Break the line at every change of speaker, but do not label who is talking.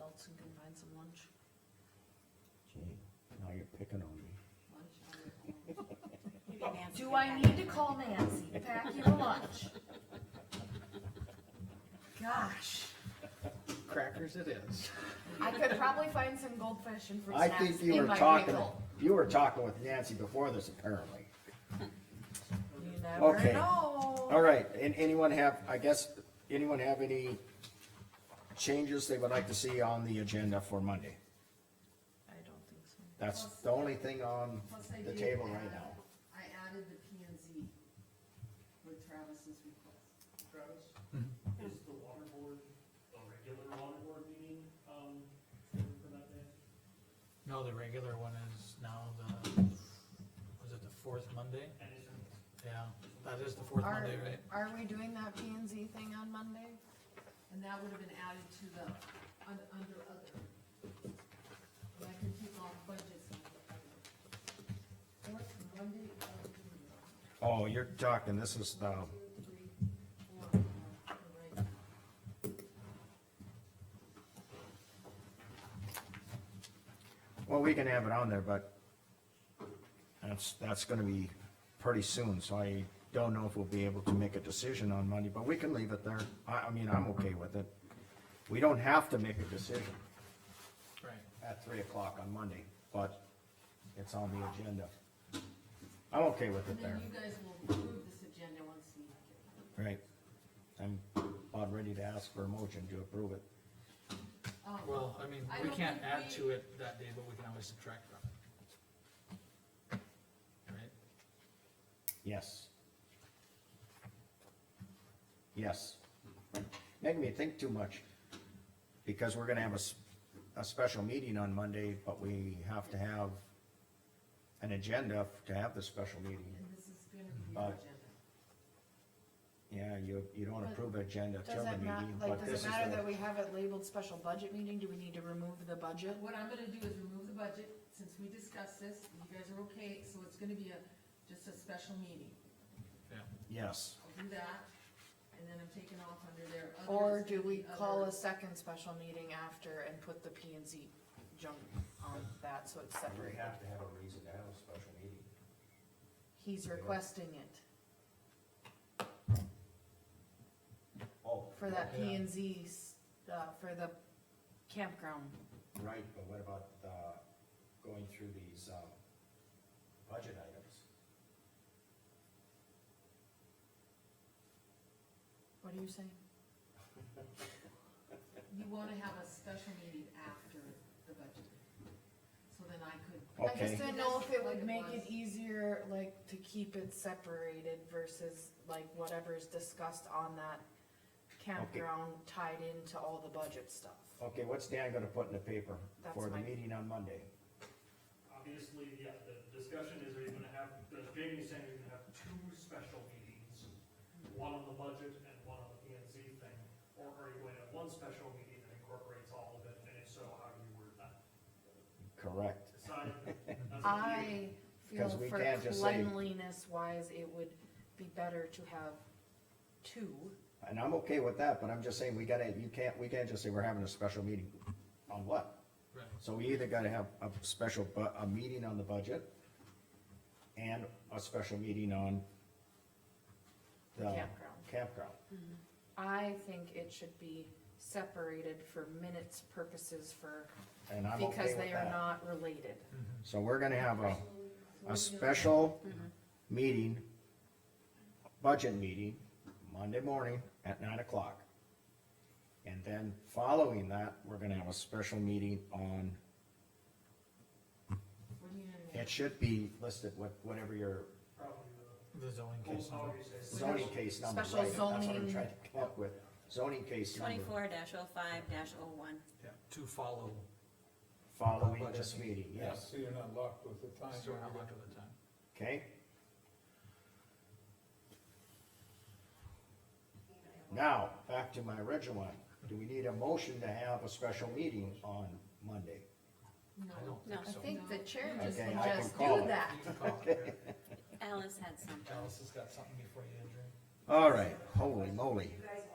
else and can find some lunch.
Gee, now you're picking on me.
Lunch,
Do I need to call Nancy, pack you a lunch? Gosh,
Crackers it is.
I could probably find some goldfish and fruit
I
snacks in my
think you were talking,
vehicle.
you were talking with Nancy before this apparently.
You never
Okay.
know.
All right, and anyone have, I guess, anyone have any changes they would like to see on the agenda for Monday?
I don't think so.
That's the only thing on
Plus I
the
did
table right
add-
now.
I added the P and Z with Travis's request.
Travis, is the water board, a regular water board meeting, um, for that day?
No, the regular one is now the, was it the fourth Monday?
And is it
Yeah, that is the fourth
Are-
Monday, right?
Are we doing that P and Z thing on Monday?
And that would have been added to the, un- under other. And I can take off budgets and put other. Fourth Monday of the month.
Oh, you're talking, this is the,
Two, three, four, five, all right.
well, we can have it on there, but that's, that's gonna be pretty soon, so I don't know if we'll be able to make a decision on Monday, but we can leave it there. I, I mean, I'm okay with it. We don't have to make a decision.
Right.
at three o'clock on Monday, but it's on the agenda. I'm okay with
And
it
then
there,
you guys will approve this agenda once you get it.
right? I'm about ready to ask for a motion to approve it.
Um,
Well, I mean,
I
we
don't
can't
think
add
we-
to it that day, but we can always subtract from it. Right?
Yes. Yes. Making me think too much, because we're gonna have a, s- a special meeting on Monday, but we have to have an agenda to have the special meeting.
And this is gonna be your
But-
agenda.
Yeah, you, you don't
But
approve agenda till the
Does it not,
meeting,
like,
but this
does
is
it matter
the-
that we have it labeled special budget meeting? Do we need to remove the budget?
What I'm gonna do is remove the budget, since we discussed this, and you guys are okay, so it's gonna be a, just a special meeting.
Yeah.
Yes.
I'll do that, and then I'm taking off under there. Other
Or
is
do
gonna
we
be other.
call a second special meeting after and put the P and Z junk on that so it's
We
separate?
have to have a reason to have a special meeting.
He's requesting it
Oh,
for that P and Z's, uh, for the campground.
right, but what about, uh, going through these, um, budget items?
What are you saying?
You wanna have a special meeting after the budget. So then I could,
I just
Okay,
didn't know if it would make it easier, like, to keep it separated versus like whatever's discussed on that campground tied into all the budget stuff.
okay, what's Dan gonna put in the paper
That's
for the
my-
meeting on Monday?
Obviously, yeah, the discussion is, are you gonna have, as Jamie's saying, you're gonna have two special meetings, one on the budget and one on the P and Z thing, or are you going to have one special meeting that incorporates all of it, and if so, how do you word that?
Correct.
Decide, that's up to you.
I feel
'Cause we
for
can't just say-
cleanliness wise, it would be better to have two.
And I'm okay with that, but I'm just saying, we gotta, you can't, we can't just say we're having a special meeting. On what?
Right.
So we either gotta have a special bu, a meeting on the budget and a special meeting on the
Campground.
Campground.
I think it should be separated for minutes purposes for,
And I'm okay with that.
because they are not related.
So we're gonna have a, a special meeting, budget meeting, Monday morning at nine o'clock. And then following that, we're gonna have a special meeting on,
what do you gonna
it
make?
should be listed with whatever your
Probably the,
The zoning case
Oh,
how
number.
you say. it.
zoning case number, right?
Special
That's what I'm
zoning.
trying to come up with, zoning case number,
Twenty-four dash oh five dash oh one.
Yeah. To follow,
following
Budget.
this meeting,
Yeah,
yes,
so you're not locked with the time.
so we're not looking at the time.
okay? Now, back to my original one, do we need a motion to have a special meeting on Monday?
I don't
No.
think so.
I think the chair
just
just
Okay, I can
suggests
suggests call do
do
it.
that.
that.
You can call it.
Alice had something.
Alice has got something before you, Andrew.
All right, holy moly.
You guys